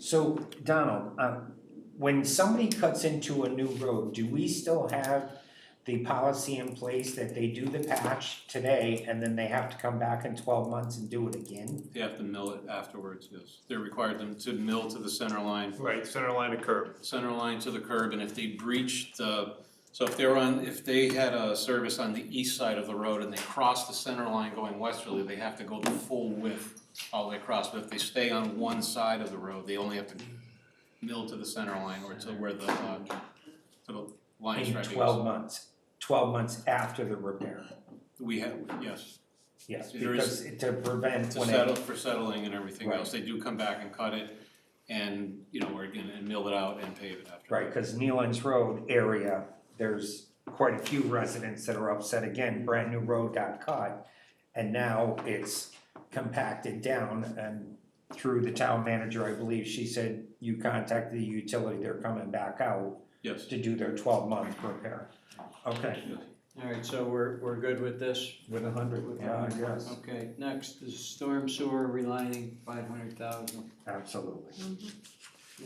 So Donald, um, when somebody cuts into a new road, do we still have the policy in place that they do the patch today and then they have to come back in twelve months and do it again? They have to mill it afterwards, yes. They're required them to mill to the center line, Right, center line of curb. center line to the curb, and if they breach the, so if they're on, if they had a service on the east side of the road and they cross the center line going westerly, they have to go the full width all the way across, but if they stay on one side of the road, they only have to mill to the center line or to where the, uh, to the line In striping is. twelve months, twelve months after the repair, We have, yes, yes, There is- because to prevent to when it, settle, for settling and everything Right. else, they do come back and cut it and, you know, or again, and mill it out and pave it after. right, cause Nealon's Road area, there's quite a few residents that are upset again, brand new road got cut. And now it's compacted down and through the town manager, I believe, she said, you contacted the utility, they're coming back out Yes. to do their twelve month repair. Okay, All right, so we're, we're good with this? with a hundred, With a yeah, hundred. yes, Okay, next is storm sewer relining, five hundred thousand. absolutely.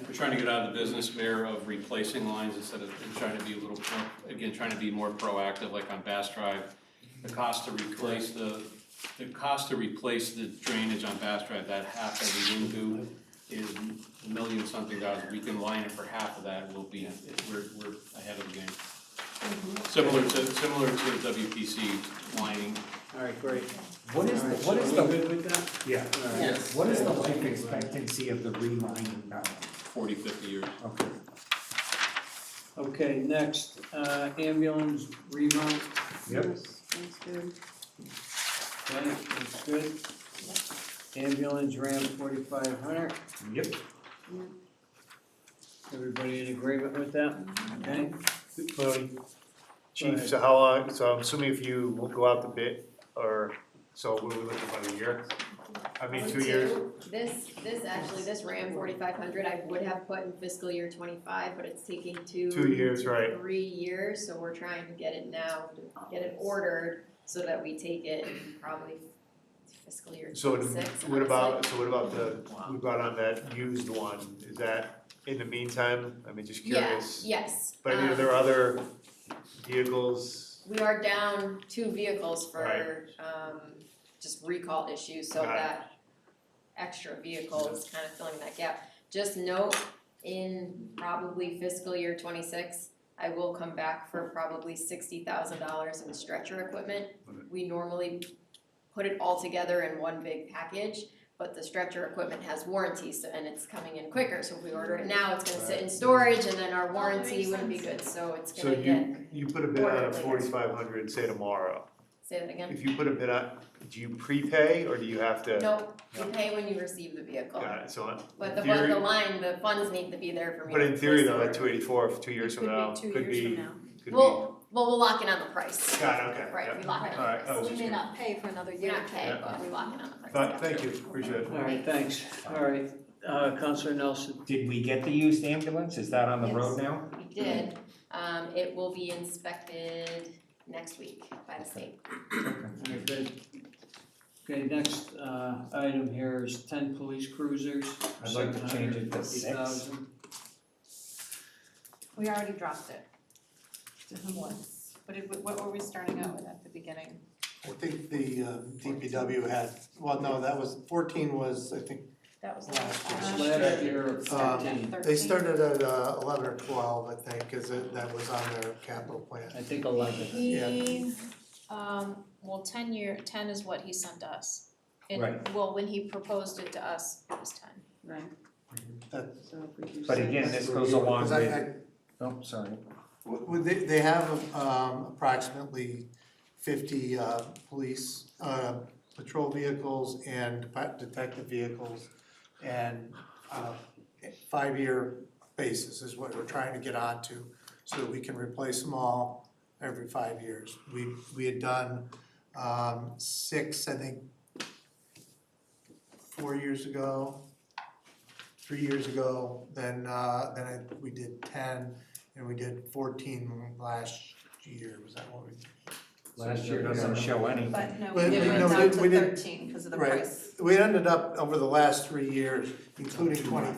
We're trying to get out of the business, Mayor, of replacing lines instead of, and trying to be a little, pro- again, trying to be more proactive, like on Bass Drive. The cost to replace the, the cost to replace the drainage on Bass Drive, that half that we didn't do is a million something dollars. We can line it for half of that, we'll be, we're, we're ahead of the game. Similar to, similar to the WPC lining. All right, great. What is, All the right, what so is we the, good with that? yeah, All right. Yes. what is the life expectancy of the relining now? 40, 50 years. Okay. Okay, next, uh, ambulance remount, Yep. Yes, That's good. okay, that's good. Ambulance ram forty-five hundred, Yep. everybody in agreement with that? Okay, Chief, so how long, so I'm assuming if you will go out the bit, or, so what are we looking for, a year? I mean, two years? This, this actually, this Ram forty-five hundred, I would have put in fiscal year twenty-five, but it's taking two. Two years, right. Three years, so we're trying to get it now, get it ordered, so that we take it in probably fiscal year So twenty-six. it- what about, so what about the, we brought on that used one, is that in the meantime, I mean, just Yes, curious? yes. But I mean, are um, there other vehicles? We are down two vehicles for, Right. um, just recall issues, so Got it. that extra vehicle is kind of filling that gap. Just note, in probably fiscal year twenty-six, I will come back for probably sixty thousand dollars in stretcher equipment. Right. We normally put it all together in one big package, but the stretcher equipment has warranties, so- and it's coming in quicker, so if we order it now, it's gonna sit in storage, and then our warranty wouldn't be good, so it's So gonna get, you, you put a bid on a forty-five hundred, say tomorrow, say that again. if you put a bid on, do you prepay, or do you have to? No, you No. pay when you receive the vehicle. Got it, so But in the, but the theory, line, the funds need to be there for me but to in theory place though, the at two eighty-four, two years from now, could be, could be, Well, well, we're locking on the price. got it, okay, Right, we yeah. lock it on Alright, the I price. was just We may curious. not pay for another We're year. not paying, yeah. but we lock it on the price. But thank you, appreciate it. all right, thanks, all right, uh, Counselor Nelson, Did we get the used ambulance? Is that on the road Yes. now? We did, um, it will be inspected next week by the state. all right, good. Okay, next, uh, item here is ten police cruisers, I'd like to change it to six. 750,000. We already dropped it. Once. What did, we- what were we starting out with at the beginning? I think the uh, DPW had, well, no, that was, fourteen was, I think, That was Last year. Um, last year. Last year, It started at thirteen, 13. they started at uh, eleven or twelve, I think, cause it- that was on their capital plan. I think eleven. He, um, well, ten year, ten is what he sent us. And, Right. well, when he proposed it to us, it was ten. Right. That- So if we do But six- again, this goes along Cause I, with- I, Oh, sorry. w- would they, they have um, approximately fifty uh, police, uh, patrol vehicles and depa- detective vehicles. And uh, five-year basis is what we're trying to get onto, so that we can replace them all every five years. We, we had done um, six, I think, four years ago, three years ago, then, uh, then I, we did ten, and we did fourteen last year, was that what we? Last year doesn't show anything. But no, we Well, did we- it no, down we- to we didn't- thirteen because of the right. price. We ended up over the last three years, including twenty